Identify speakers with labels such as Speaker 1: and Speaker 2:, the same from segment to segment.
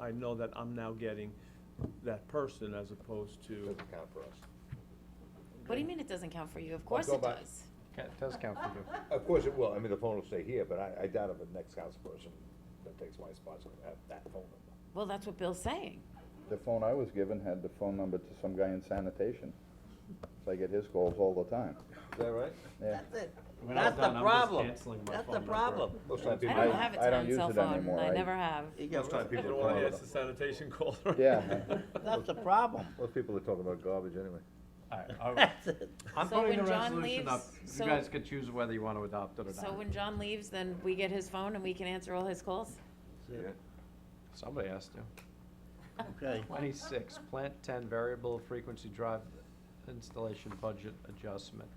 Speaker 1: I know that I'm now getting that person as opposed to,
Speaker 2: Doesn't count for us.
Speaker 3: What do you mean it doesn't count for you? Of course
Speaker 2: go
Speaker 3: it
Speaker 2: by-
Speaker 3: does.
Speaker 4: Ca- Does count for you.
Speaker 2: Of course it will, I mean, the phone will stay here, but I, I doubt if the next council person that takes my spot's gonna have that phone number.
Speaker 3: Well, that's what Bill's saying.
Speaker 5: The phone I was given had the phone number to some guy in sanitation. So I get his calls all the time.
Speaker 2: Is that right?
Speaker 5: Yeah.
Speaker 6: That's it.
Speaker 4: When I'm
Speaker 6: That's the
Speaker 4: done, I'm just
Speaker 6: problem.
Speaker 4: canceling my
Speaker 6: That's
Speaker 4: phone
Speaker 6: the
Speaker 4: number.
Speaker 6: problem.
Speaker 2: Most time
Speaker 3: I
Speaker 2: people,
Speaker 3: don't
Speaker 5: I-
Speaker 3: have it
Speaker 5: I don't
Speaker 3: on
Speaker 5: use
Speaker 3: cell
Speaker 5: it
Speaker 3: phone.
Speaker 5: anymore.
Speaker 3: I
Speaker 5: I-
Speaker 3: never have.
Speaker 6: You
Speaker 2: most
Speaker 6: got-
Speaker 2: time
Speaker 1: I
Speaker 2: people
Speaker 1: don't
Speaker 2: are
Speaker 1: wanna
Speaker 2: calling,
Speaker 1: answer sanitation calls.
Speaker 5: Yeah.
Speaker 6: That's the problem.
Speaker 2: most people are talking about garbage anyway.
Speaker 4: All right, I'll-
Speaker 6: That's it.
Speaker 4: I'm
Speaker 3: So
Speaker 4: putting
Speaker 3: when
Speaker 4: the
Speaker 3: John
Speaker 4: resolution up.
Speaker 3: leaves-
Speaker 4: You
Speaker 3: so-
Speaker 4: guys could choose whether you want to adopt it or
Speaker 3: So
Speaker 4: not.
Speaker 3: when John leaves, then we get his phone and we can answer all his calls?
Speaker 2: Yeah.
Speaker 4: Somebody has to.
Speaker 6: Okay.
Speaker 4: Twenty-six, plant ten variable frequency drive installation budget adjustment.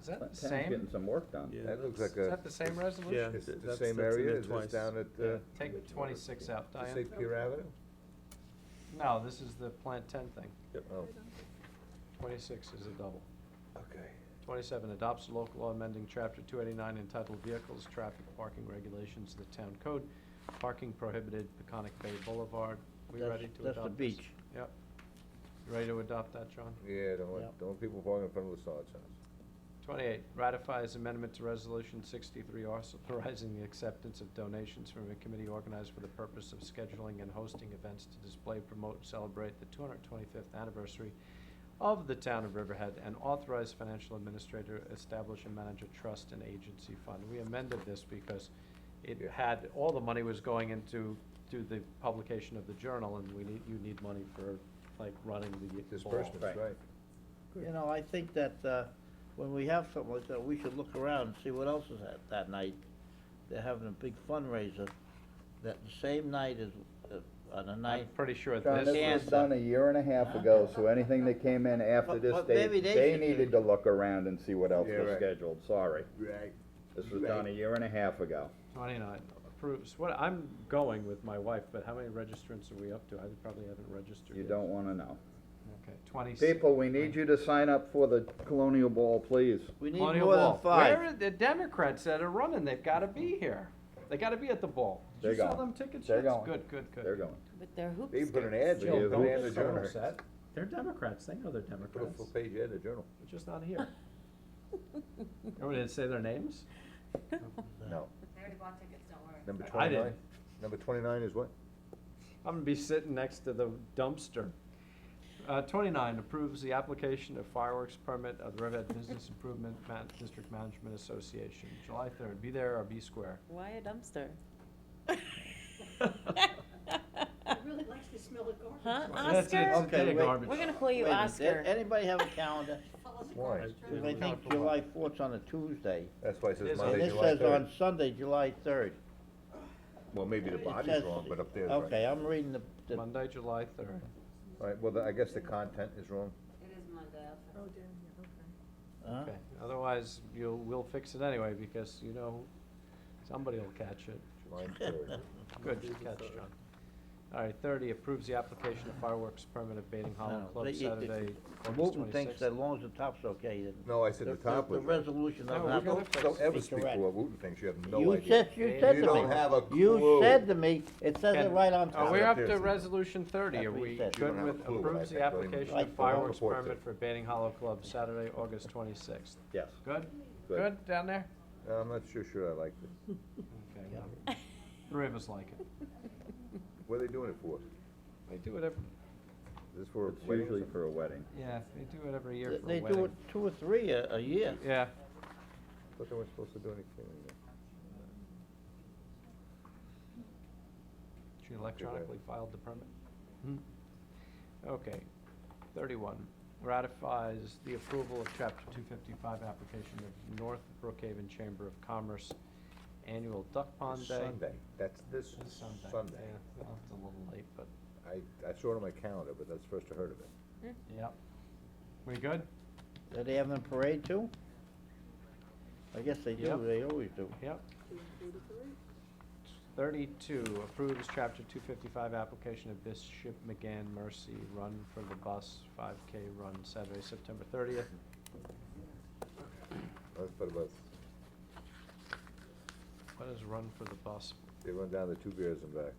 Speaker 4: Is that the
Speaker 5: Uh, Plant ten's
Speaker 4: same?
Speaker 5: Getting some work done.
Speaker 1: Yeah.
Speaker 2: That looks like
Speaker 4: Is that
Speaker 2: a,
Speaker 4: the same resolution?
Speaker 1: Yeah,
Speaker 2: it's
Speaker 1: th-
Speaker 2: the
Speaker 1: that's-
Speaker 2: same
Speaker 1: that's in
Speaker 2: area,
Speaker 1: there
Speaker 2: is this
Speaker 1: twice.
Speaker 2: down at, uh,
Speaker 4: Take twenty-six out,
Speaker 2: does it say
Speaker 4: Diane.
Speaker 2: Pier Avenue?
Speaker 4: No, this is the plant ten thing.
Speaker 2: Oh,
Speaker 4: Twenty-six is a double.
Speaker 2: okay.
Speaker 4: Twenty-seven, adopts local law amending chapter two eighty-nine entitled Vehicles, Traffic, Parking Regulations of the Town Code, parking prohibited Peconic Bay Boulevard. We
Speaker 6: That's-
Speaker 4: ready to
Speaker 6: that's the
Speaker 4: adopt this?
Speaker 6: beach.
Speaker 4: Yep. You ready to adopt that, John?
Speaker 2: Yeah, don't
Speaker 6: Yep.
Speaker 2: want, don't want people parking in front of the Sarge house.
Speaker 4: Twenty-eight, ratifies amendment to resolution sixty-three authorizing the acceptance of donations from a committee organized for the purpose of scheduling and hosting events to display, promote, and celebrate the two hundred twenty-fifth anniversary of the town of Riverhead and authorize financial administrator establish and manage a trust and agency fund. We amended this because it
Speaker 2: Yeah.
Speaker 4: had, all the money was going into, to the publication of the journal and we need, you need money for like running the ball.
Speaker 2: Disbursements,
Speaker 6: Right.
Speaker 2: right.
Speaker 6: You know, I think that, uh, when we have something like that, we should look around and see what else is at that night. They're having a big fundraiser that the same night as, uh, on the
Speaker 4: I'm
Speaker 6: night.
Speaker 4: pretty sure
Speaker 5: John,
Speaker 4: this.
Speaker 5: this was
Speaker 6: Cancer.
Speaker 5: done a year and a half
Speaker 6: Huh?
Speaker 5: ago, so anything that came in after
Speaker 6: But-
Speaker 5: this
Speaker 6: but
Speaker 5: date,
Speaker 6: maybe they
Speaker 5: they
Speaker 6: should do-
Speaker 5: needed to look around and see what else
Speaker 2: Yeah,
Speaker 5: was
Speaker 2: right.
Speaker 5: scheduled, sorry.
Speaker 2: Right.
Speaker 5: This was done a year and a half ago.
Speaker 4: Twenty-nine approves, what, I'm going with my wife, but how many registrants are we up to? I probably haven't registered
Speaker 5: You
Speaker 4: yet.
Speaker 5: don't wanna know.
Speaker 4: Okay, twenty-six.
Speaker 5: People, we need you to sign up for the Colonial Ball, please.
Speaker 6: We need
Speaker 4: Colonial
Speaker 6: more than
Speaker 4: Ball. Where
Speaker 6: five.
Speaker 4: are the Democrats that are running? They've gotta be here. They gotta be at the ball. Did you
Speaker 5: They're
Speaker 4: sell
Speaker 5: going.
Speaker 4: them tickets?
Speaker 5: They're
Speaker 4: That's
Speaker 5: going.
Speaker 4: Good, good, good.
Speaker 5: They're going.
Speaker 3: With their hoops.
Speaker 2: They put an ad,
Speaker 4: Jill,
Speaker 2: in
Speaker 5: Yeah,
Speaker 2: the
Speaker 4: don't
Speaker 5: who-
Speaker 2: ad in the
Speaker 4: get so
Speaker 2: journal.
Speaker 4: upset. They're Democrats, they know they're
Speaker 2: Put a
Speaker 4: Democrats,
Speaker 2: full
Speaker 4: they're
Speaker 2: page ad in the journal.
Speaker 4: just not here. Are we gonna say their names?
Speaker 2: No.
Speaker 7: I already bought tickets, don't worry.
Speaker 2: Number
Speaker 4: I- I
Speaker 2: twenty-nine?
Speaker 4: didn't.
Speaker 2: Number twenty-nine is what?
Speaker 4: I'm gonna be sitting next to the dumpster. Uh, twenty-nine, approves the application of fireworks permit of the Riverhead Business Improvement Man- District Management Association, July third, be there or be square.
Speaker 3: Why a dumpster?
Speaker 7: I really likes the smell of garbage.
Speaker 3: Huh,
Speaker 4: That's it, it's a
Speaker 3: Oscar?
Speaker 6: Okay,
Speaker 4: day of
Speaker 6: wait.
Speaker 4: garbage.
Speaker 3: We're gonna call you
Speaker 6: Wait a minute,
Speaker 3: Oscar.
Speaker 6: did Anybody have a calendar?
Speaker 7: Follows the
Speaker 2: Why?
Speaker 7: garbage truck.
Speaker 6: Because I think July fourth's on a Tuesday.
Speaker 2: That's why it
Speaker 4: It
Speaker 2: says
Speaker 4: is
Speaker 6: And
Speaker 2: Monday,
Speaker 6: this
Speaker 2: July
Speaker 6: says on
Speaker 2: third.
Speaker 6: Sunday, July third.
Speaker 2: Well, maybe the
Speaker 6: It
Speaker 2: body's
Speaker 6: says-
Speaker 2: wrong, but up there is right.
Speaker 6: Okay, I'm reading the, the
Speaker 4: Monday, July third.
Speaker 2: All right, well, the- I guess the content is wrong.
Speaker 7: It is Monday. I'll fix it.
Speaker 6: Huh?
Speaker 4: Okay, otherwise, you'll, we'll fix it anyway, because you know, somebody'll catch it.
Speaker 2: July third.
Speaker 4: Good catch, John. All right, thirty, approves the application of fireworks permit of Baiting
Speaker 6: I don't
Speaker 4: Hollow
Speaker 6: know.
Speaker 4: Club
Speaker 6: They- it- it-
Speaker 4: Saturday, August
Speaker 6: Wooton thinks
Speaker 4: twenty-sixth.
Speaker 6: that long as the top's okay, then.
Speaker 2: No, I said the top was
Speaker 6: The
Speaker 2: wrong.
Speaker 6: resolution
Speaker 4: No,
Speaker 6: doesn't
Speaker 4: we're
Speaker 6: have to.
Speaker 4: gonna fix
Speaker 2: Don't
Speaker 4: it.
Speaker 2: ever
Speaker 6: be
Speaker 2: speak
Speaker 6: correct.
Speaker 2: for what Wooton thinks, you have no
Speaker 6: You
Speaker 2: idea.
Speaker 6: said, you
Speaker 4: You
Speaker 6: said to me.
Speaker 2: don't have a
Speaker 6: You
Speaker 2: clue.
Speaker 6: said to me, it says it
Speaker 4: Ken,
Speaker 6: right on
Speaker 4: Are
Speaker 6: top.
Speaker 4: we
Speaker 2: Up
Speaker 4: Oh, up
Speaker 2: there
Speaker 4: to
Speaker 2: is-
Speaker 4: resolution thirty?
Speaker 6: That's
Speaker 4: Are
Speaker 6: what he
Speaker 4: we
Speaker 6: said.
Speaker 2: You don't
Speaker 4: good
Speaker 2: have a
Speaker 4: with
Speaker 2: clue what I
Speaker 4: approves the
Speaker 2: think, don't even-
Speaker 4: application
Speaker 2: I
Speaker 4: of
Speaker 2: don't
Speaker 4: fireworks
Speaker 2: report to
Speaker 4: permit
Speaker 2: it.
Speaker 4: for Baiting Hollow Club Saturday, August twenty-sixth?
Speaker 5: Yes.
Speaker 4: Good?
Speaker 5: Good.
Speaker 4: Good down there?
Speaker 2: I'm not sure, sure I like it.
Speaker 4: Okay, well, three of us like it.
Speaker 2: What are they doing it for?
Speaker 4: They do it every,
Speaker 2: Is this for a
Speaker 5: It's
Speaker 2: wedding or
Speaker 5: usually
Speaker 2: something?
Speaker 5: for a wedding.
Speaker 4: yeah, they do it every year
Speaker 6: They-
Speaker 4: for a
Speaker 6: They do it
Speaker 4: wedding.
Speaker 6: two or three a, a year.
Speaker 4: Yeah.
Speaker 2: Thought they weren't supposed to do anything. in there.
Speaker 4: She electronically filed the permit. Hmm. Okay, thirty-one, ratifies the approval of chapter two fifty-five application of North Brookhaven Chamber of Commerce annual duck pond
Speaker 2: It's
Speaker 4: day.
Speaker 2: Sunday, that's this
Speaker 4: It's Sunday.
Speaker 2: Sunday.
Speaker 4: Yeah, well, it's a little late, but,
Speaker 2: I, I saw it on my calendar, but that's the first I heard of it.
Speaker 4: yep. We good?
Speaker 6: Are they having a parade too? I guess they do,
Speaker 4: Yep.
Speaker 6: they always do.
Speaker 4: Yep. Thirty-two, approves chapter two fifty-five application of Bishop McGann Mercy Run for the Bus, five K run Saturday, September thirtieth.
Speaker 2: I thought about,
Speaker 4: What is run for the bus?
Speaker 2: they run down the two beers and back.